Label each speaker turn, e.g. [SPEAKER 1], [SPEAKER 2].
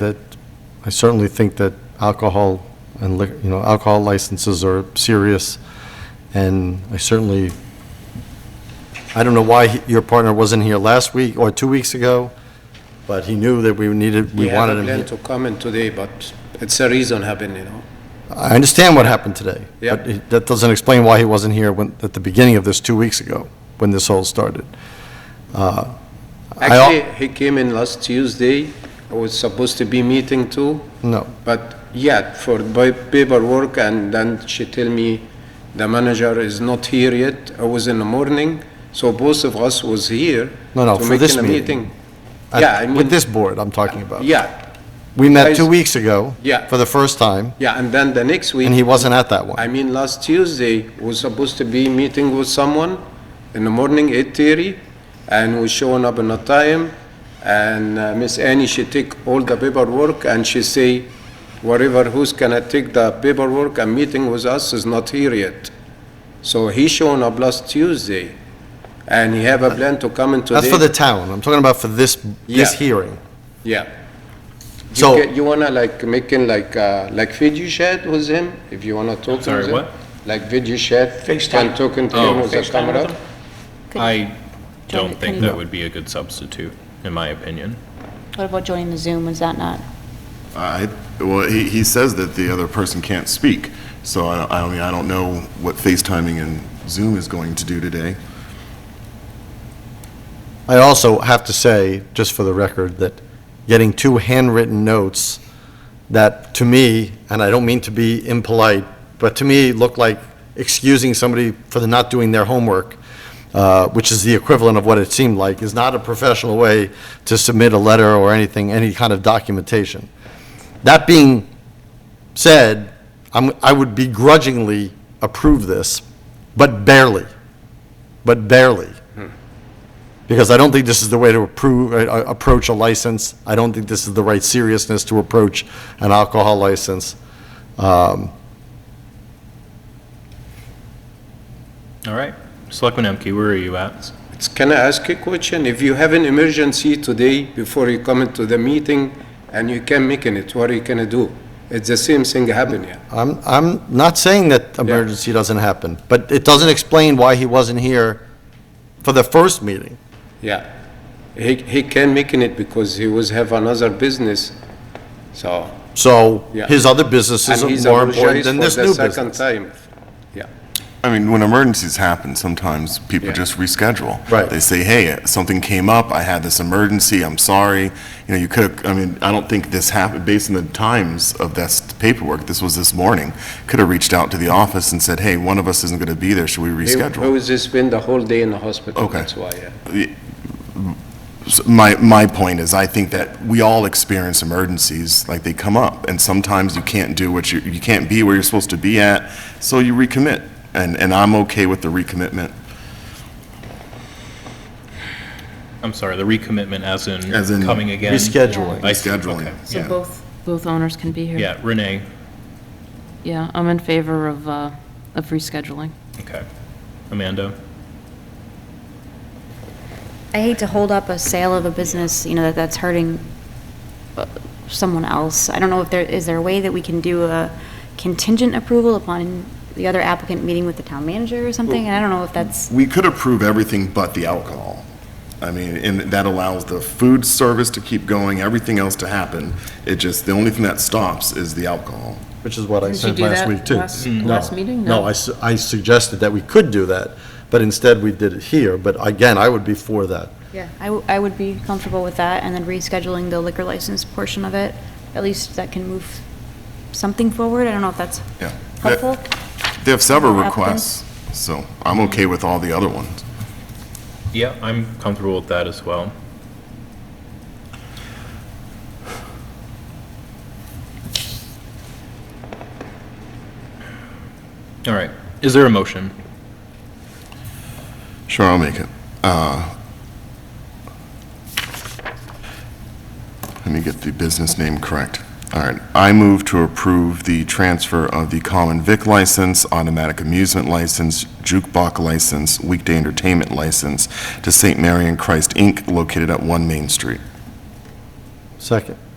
[SPEAKER 1] that, I certainly think that alcohol and liquor, you know, alcohol licenses are serious, and I certainly, I don't know why he- your partner wasn't here last week or two weeks ago, but he knew that we needed, we wanted him
[SPEAKER 2] We had a
[SPEAKER 1] here.
[SPEAKER 2] plan to come in today, but it's a reason happened, you know.
[SPEAKER 1] I understand what happened today.
[SPEAKER 2] Yeah.
[SPEAKER 1] But it- that doesn't explain why he wasn't here when, at the beginning of this, two weeks ago, when this all started. I al-
[SPEAKER 2] Actually, he came in last Tuesday, I was supposed to be meeting too,
[SPEAKER 1] No,
[SPEAKER 2] but yeah, for pa- paperwork, and then she tell me the manager is not here yet, I was in the morning, so both of us was here.
[SPEAKER 1] No, no,
[SPEAKER 2] to
[SPEAKER 1] for
[SPEAKER 2] make
[SPEAKER 1] this
[SPEAKER 2] in a
[SPEAKER 1] meeting. I-
[SPEAKER 2] Yeah, I mean-
[SPEAKER 1] With this board I'm talking about.
[SPEAKER 2] Yeah,
[SPEAKER 1] We met
[SPEAKER 2] guys-
[SPEAKER 1] two weeks ago.
[SPEAKER 2] Yeah.
[SPEAKER 1] For the first time,
[SPEAKER 2] yeah, and then the next week.
[SPEAKER 1] and he wasn't at that one.
[SPEAKER 2] I mean, last Tuesday, was supposed to be meeting with someone in the morning, eight thirty, and we showing up on a time, and uh, Miss Annie, she take all the paperwork, and she say, whatever, who's gonna take the paperwork and meeting with us is not here yet. So he showing up last Tuesday, and he have a plan to come in today.
[SPEAKER 1] That's for the town, I'm talking about for this, this
[SPEAKER 2] Yeah.
[SPEAKER 1] hearing.
[SPEAKER 2] Yeah. You
[SPEAKER 1] So-
[SPEAKER 2] ca- You wanna like making like, uh, like video chat with him, if you wanna talk with him?
[SPEAKER 3] sorry, what?
[SPEAKER 2] Like video chat? Can talking to
[SPEAKER 3] Oh.
[SPEAKER 2] him with the
[SPEAKER 3] FaceTime
[SPEAKER 2] camera?
[SPEAKER 3] I
[SPEAKER 4] Johnny,
[SPEAKER 3] don't think
[SPEAKER 4] can
[SPEAKER 3] that
[SPEAKER 4] you-
[SPEAKER 3] would be a good substitute, in my opinion.
[SPEAKER 4] What about joining the Zoom, is that not?
[SPEAKER 5] I, well, he, he says that the other person can't speak, so I, I mean, I don't know what FaceTiming and Zoom is going to do today.
[SPEAKER 1] I also have to say, just for the record, that getting two handwritten notes that, to me, and I don't mean to be impolite, but to me, look like excusing somebody for not doing their homework, uh, which is the equivalent of what it seemed like, is not a professional way to submit a letter or anything, any kind of documentation. That being said, I'm, I would begrudgingly approve this, but barely, but barely because I don't think this is the way to approve, uh, uh, approach a license. I don't think this is the right seriousness to approach an alcohol license.
[SPEAKER 3] All right. Selectman Emke, where are you at?
[SPEAKER 2] It's- Can I ask a question? If you have an emergency today before you come into the meeting and you can make it, what are you gonna do? It's the same thing happen here.
[SPEAKER 1] I'm, I'm not saying that emergency doesn't happen, but it doesn't explain why he wasn't here for the first meeting.
[SPEAKER 2] Yeah. He, he can making it because he was have another business, so.
[SPEAKER 1] So
[SPEAKER 2] Yeah.
[SPEAKER 1] his other businesses
[SPEAKER 2] and he's
[SPEAKER 1] are more important
[SPEAKER 2] apologized
[SPEAKER 1] than
[SPEAKER 2] for
[SPEAKER 1] this
[SPEAKER 2] the
[SPEAKER 1] new
[SPEAKER 2] Second
[SPEAKER 1] business.
[SPEAKER 2] time, yeah.
[SPEAKER 5] I mean, when emergencies happen, sometimes people
[SPEAKER 2] Yeah.
[SPEAKER 5] just reschedule.
[SPEAKER 1] Right.
[SPEAKER 5] They say, hey, something came up, I had this emergency, I'm sorry. You know, you could, I mean, I don't think this happened, based on the times of this paperwork, this was this morning, could have reached out to the office and said, hey, one of us isn't going to be there, should we
[SPEAKER 2] He
[SPEAKER 5] reschedule?
[SPEAKER 2] he was just spend the whole day in the hospital,
[SPEAKER 5] Okay.
[SPEAKER 2] that's why, yeah.
[SPEAKER 5] So My, my point is, I think that we all experience emergencies, like they come up, and sometimes you can't do what you, you can't be where you're supposed to be at, so you recommit, and, and I'm okay with the recommitment,
[SPEAKER 3] I'm sorry, the recommitment as in
[SPEAKER 5] As in
[SPEAKER 3] coming again?
[SPEAKER 1] Rescheduling.
[SPEAKER 3] I see,
[SPEAKER 5] Rescheduling.
[SPEAKER 3] okay.
[SPEAKER 6] So both, both owners can be here?
[SPEAKER 3] Yeah, Renee,
[SPEAKER 6] Yeah, I'm in favor of, uh, of rescheduling.
[SPEAKER 3] okay. Amanda?
[SPEAKER 4] I hate to hold up a sale of a business, you know, that that's hurting uh, someone else. I don't know if there, is there a way that we can do a contingent approval upon the other applicant meeting with the town manager or something? And I don't know if that's,
[SPEAKER 5] We could approve everything but the alcohol. I mean, and that allows the food service to keep going, everything else to happen. It just, the only thing that stops is the alcohol.
[SPEAKER 1] Which is what I
[SPEAKER 6] Didn't you
[SPEAKER 1] said
[SPEAKER 6] do
[SPEAKER 1] last
[SPEAKER 6] that
[SPEAKER 1] week, too.
[SPEAKER 6] last-
[SPEAKER 1] No.
[SPEAKER 6] last meeting?
[SPEAKER 1] No,
[SPEAKER 6] No.
[SPEAKER 1] I, su- I suggested that we could do that, but instead we did it here. But again, I would be for that.
[SPEAKER 4] yeah, I, w- I would be comfortable with that and then rescheduling the liquor license portion of it. At least that can move something forward. I don't know if that's
[SPEAKER 5] Yeah.
[SPEAKER 4] helpful.
[SPEAKER 5] They have several
[SPEAKER 4] Applicants?
[SPEAKER 5] requests, so I'm okay with all the other ones.
[SPEAKER 3] Yeah, I'm comfortable with that as well. All right. Is there a motion?
[SPEAKER 5] Sure, I'll make it. Uh, Let me get the business name correct. All right, I move to approve the transfer of the common vic license, automatic amusement license, jukebox license, weekday entertainment license to St. Mary and Christ, Inc., located at 1 Main Street.
[SPEAKER 1] Second.